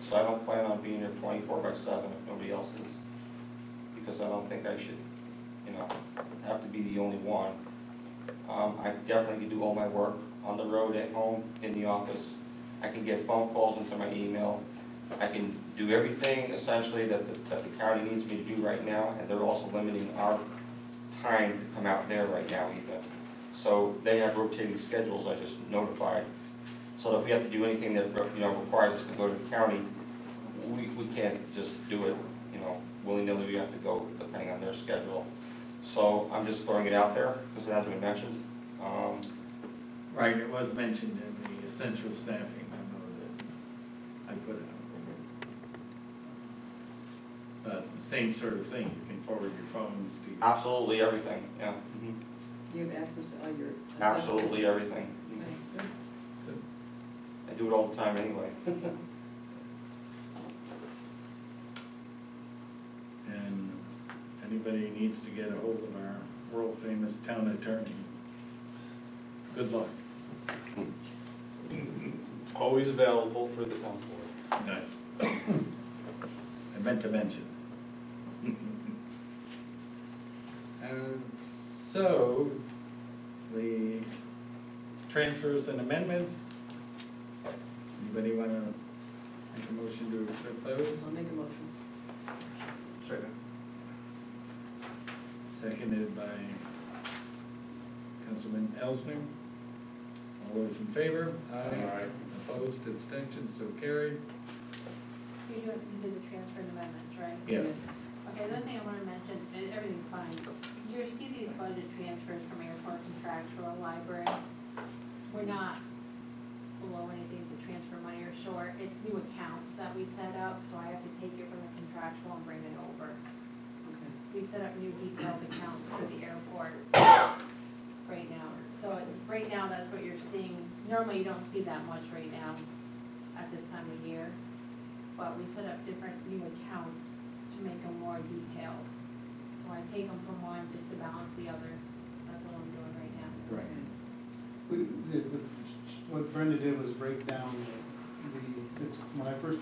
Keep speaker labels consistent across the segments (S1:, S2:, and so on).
S1: So I don't plan on being here twenty-four by seven if nobody else is, because I don't think I should, you know, have to be the only one. Um, I definitely can do all my work on the road, at home, in the office. I can get phone calls into my email. I can do everything essentially that, the- that the county needs me to do right now, and they're also limiting our time to come out there right now even. So they have rotating schedules, I just notified. So if we have to do anything that, you know, requires us to go to the county, we, we can't just do it, you know, willy-nilly, we have to go depending on their schedule. So I'm just throwing it out there, because it hasn't been mentioned. Um,
S2: Right, it was mentioned in the essential staffing memo that I put out. But same sort of thing, you can forward your phones to your.
S1: absolutely everything, yeah,
S3: You have access to all your.
S1: absolutely everything.
S3: Okay, good.
S1: I do it all the time anyway.
S2: And anybody who needs to get a hold of our world famous town attorney, good luck.
S4: Always available for the town board.
S2: Nice. I meant to mention. And so, the transfers and amendments, anybody wanna make a motion to accept those?
S3: I'll make a motion.
S2: Second. Seconded by Councilman Elsner. All those in favor?
S4: Aye.
S2: Opposed, abstentions, so carried.
S5: So you do, you did the transfer and amendments, right?
S2: Yes.
S5: Okay, the other thing I wanna mention, and everything's fine, you receive these budget transfers from airport contractual library. We're not below anything to transfer money or short, it's new accounts that we set up, so I have to take it from the contractual and bring it over.
S3: Okay.
S5: We set up new detailed accounts for the airport right now. So right now, that's what you're seeing. Normally, you don't see that much right now at this time of year. But we set up different new accounts to make them more detailed. So I take them from one just to balance the other. That's what I'm doing right now.
S2: Right.
S6: We, the, the, what Brenda did was break down the, it's, when I first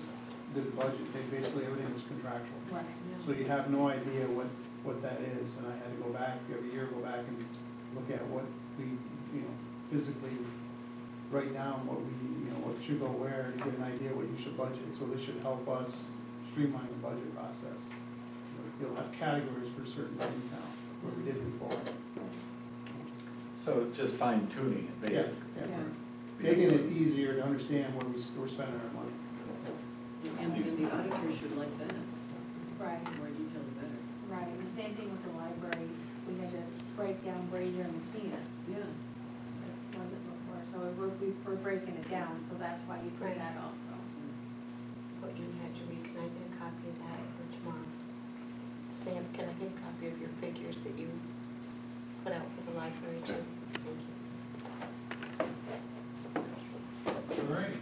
S6: did the budget, they basically, everything was contractual.
S5: Right.
S6: So you have no idea what, what that is, and I had to go back every year, go back and look at what we, you know, physically, right now, what we, you know, what should go where, and get an idea what you should budget, so this should help us streamline the budget process. You'll have categories for certain things now, where we did before.
S2: So just fine tuning it,
S6: Yeah,
S2: basically.
S6: yeah.
S3: Yeah.
S6: Making it easier to understand where we, we're spending our money.
S3: And and the auditors should like that, the
S5: Right.
S3: more detailed the better.
S5: Right. And the same thing with the library. We had to break down Brazier and Messina.
S3: Yeah,
S5: It wasn't before. So we're, we're breaking it down, so that's why you see that also.
S7: What you had to read, can I get a copy of that for tomorrow? Sam, can I get a copy of your figures that you put out for the library too? Thank you.
S2: All right.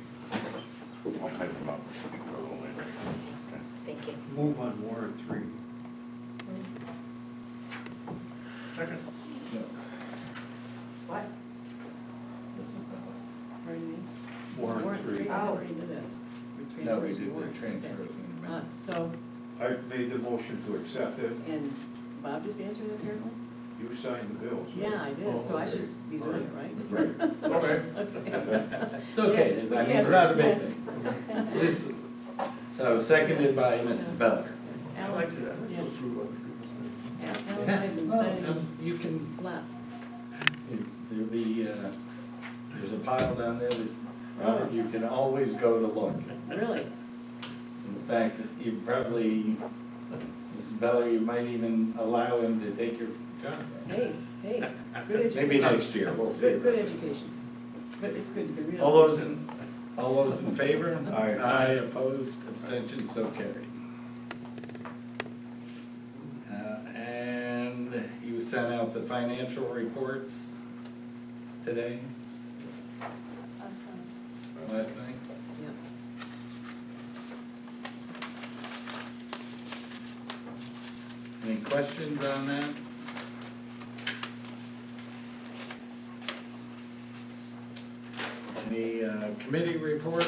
S8: I'll type them up.
S7: Thank you.
S4: Move on warrant three. Second.
S2: No,
S7: What?
S2: that's not that one.
S3: pardon me?
S4: Warrant three.
S3: I already knew that. We're
S2: No, we did
S3: transfers and warrants,
S2: the
S3: okay.
S2: transfers and
S3: Uh,
S2: amendments.
S3: so,
S4: I made the motion to accept it.
S3: and Bob just answered apparently?
S4: You signed the bills. right? Oh,
S3: Yeah, I did, so I should be doing it, right?
S2: Right.
S4: Okay.
S2: It's okay, I mean, it's
S3: Yes,
S2: not a big
S3: yes.
S2: thing. This- So seconded by Mrs. Beller.
S4: I liked it. I
S3: Yeah.
S4: approve of
S3: Alan and I have been signing
S2: Um, You can,
S3: lots.
S2: there'll be, uh, there's a pile down there that,
S3: Oh.
S2: Robert, you can always go to look.
S3: Really?
S2: In fact, you probably, Mrs. Beller, you might even allow him to take your job.
S3: Hey, hey, good education.
S2: Maybe next year, we'll see.
S3: Good, good education. But it's good, you can read
S2: All
S3: all those
S2: those in-
S3: things.
S2: All those in favor?
S4: Aye.
S2: Aye, opposed, abstentions, so carried. Uh, And you sent out the financial reports today,
S5: Awesome.
S2: last night?
S3: Yeah.
S2: Any questions on that? Any uh, committee reports? Um,